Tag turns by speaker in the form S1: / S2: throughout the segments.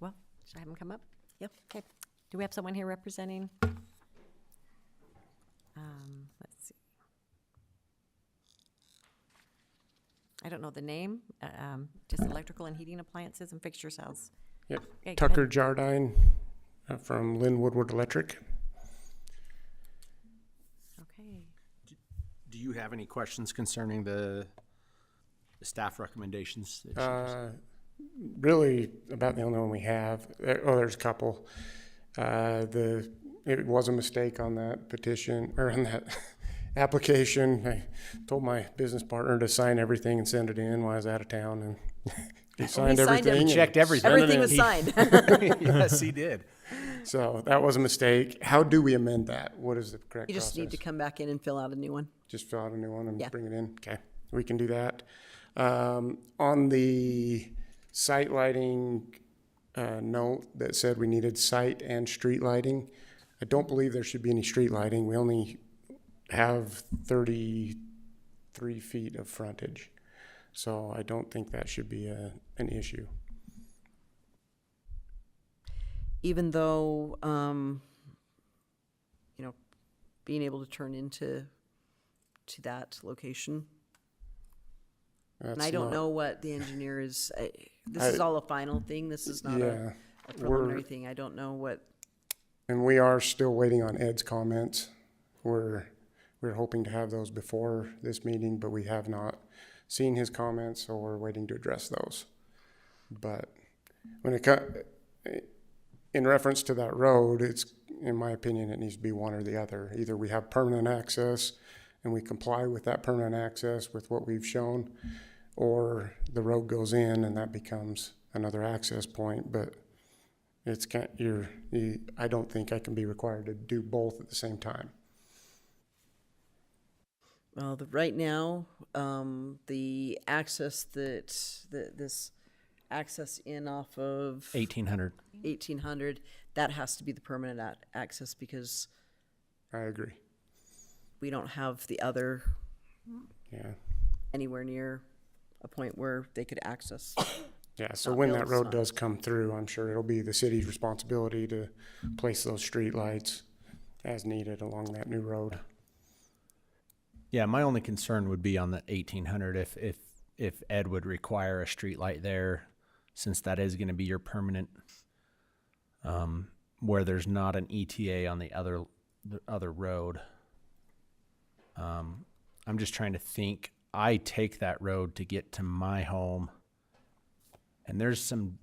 S1: Should I have him come up?
S2: Yep.
S1: Okay. Do we have someone here representing? Um, Let's see. I don't know the name, uh, um, just electrical and heating appliances and fixture cells.
S3: Yep.
S1: Okay, go ahead.
S3: Tucker Jardine uh, from Lynn Woodward Electric.
S1: Okay.
S4: Do you have any questions concerning the the staff recommendations? that she has?
S3: Uh, really about the only one we have. Uh, Oh, there's a couple. Uh, the, it was a mistake on that petition or on that application. I told my business partner to sign everything and send it in while I was out of town and he signed
S2: signed it.
S3: everything. and
S4: Checked everything.
S3: sent it
S2: Everything
S3: in.
S2: was signed.
S4: Yes, he did.
S3: So that was a mistake. How do we amend that? What is the correct
S2: You just need to
S3: process?
S2: come back in and fill out a new one.
S3: Just fill out a new one and
S2: Yeah.
S3: bring it in? Okay, we can do that. Um, on the site lighting, uh, note that said we needed site and street lighting, I don't believe there should be any street lighting. We only have thirty-three feet of frontage. So I don't think that should be a, an issue.
S2: even though, um, you know, being able to turn into to that location. And I
S3: That's
S2: don't
S3: not-
S2: know what the engineer is, I, this is
S3: I-
S2: all a final thing. This is not
S3: Yeah,
S2: a a preliminary
S3: we're-
S2: thing. I don't know what,
S3: and we are still waiting on Ed's comments. We're, we're hoping to have those before this meeting, but we have not seen his comments, so we're waiting to address those. But when it co- in reference to that road, it's, in my opinion, it needs to be one or the other. Either we have permanent access and we comply with that permanent access with what we've shown, or the road goes in and that becomes another access point, but it's kind, you're, you, I don't think I can be required to do both at the same time.
S2: well, the, right now, um, the access that, that this access in off of
S4: Eighteen hundred.
S2: eighteen hundred, that has to be the permanent ac- access because
S3: I agree.
S2: we don't have the other
S3: Yeah.
S2: anywhere near a point where they could access.
S3: Yeah, so when that
S2: built,
S3: road does come through, I'm sure it'll be the city's responsibility to place those streetlights as needed along that new road.
S4: Yeah, my only concern would be on the eighteen hundred if if if Ed would require a street light there, since that is gonna be your permanent. Um, where there's not an ETA on the other the other road. Um, I'm just trying to think. I take that road to get to my home. And there's some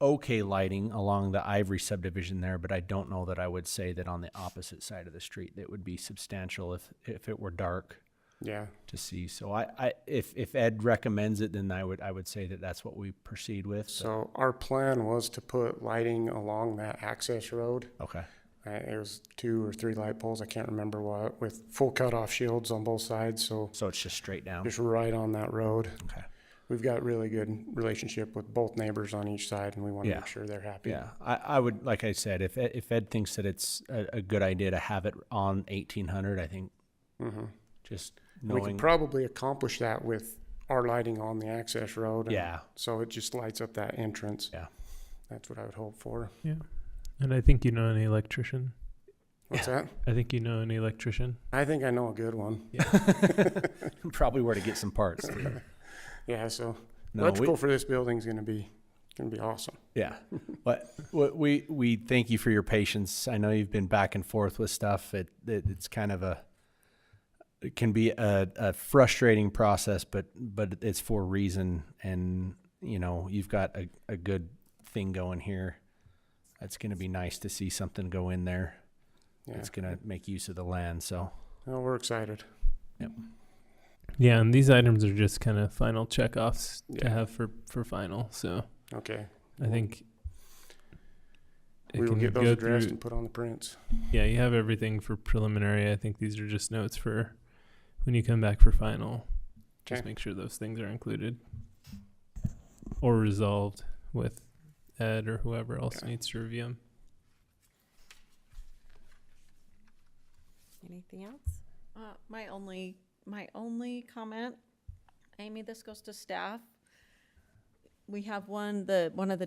S4: okay lighting along the Ivory subdivision there, but I don't know that I would say that on the opposite side of the street that would be substantial if if it were dark
S3: Yeah,
S4: to see. So I, I if if Ed recommends it, then I would I would say that that's what we proceed with. So-
S3: so our plan was to put lighting along that access road.
S4: okay.
S3: Uh, it was two or three light poles, I can't remember what, with full cutoff shields on both sides, so
S4: So it's just straight down.
S3: just right on that road.
S4: Okay.
S3: We've got really good relationship with both neighbors on each side and we want to
S4: Yeah.
S3: make sure they're happy.
S4: Yeah, I, I would like I said if Ed, if Ed thinks that it's a, a good idea to have it on eighteen hundred, I think just
S3: Mm-hmm. We can
S4: knowing
S3: probably accomplish that with our lighting on the access road. and
S4: Yeah.
S3: So it just lights up that entrance.
S4: Yeah.
S3: That's what I would hope for.
S5: Yeah. And I think you know an electrician.
S3: What's that?
S5: I think you know an electrician.
S3: I think I know a good one.
S4: probably where to get some parts.
S3: Yeah, so
S4: No, we-
S3: electrical for this building's gonna be, gonna be awesome.
S4: Yeah, but what we we thank you for your patience. I know you've been back and forth with stuff. It, it it's kind of a it can be a, a frustrating process, but but it's for reason, and you know you've got a, a good thing going here. It's going to be nice to see something go in there.
S3: Yeah,
S4: It's going to make use of the land. So
S3: no, we're excited.
S5: Yeah, and these items are just kind of final checkoffs
S3: Yeah.
S5: to have for for final. So
S3: Okay.
S5: I think
S3: We
S5: it
S3: will
S5: can
S3: get those
S5: go
S3: addressed
S5: through-
S3: and put on the prints.
S5: Yeah, you have everything for preliminary. I think these are just notes for when you come back for final. Just
S3: Okay.
S5: make sure those things are included or resolved with Ed or whoever else
S3: Okay.
S5: needs to review them.
S1: Anything else?
S6: Uh, my only, my only comment, Amy, this goes to staff. We have one, the, one of the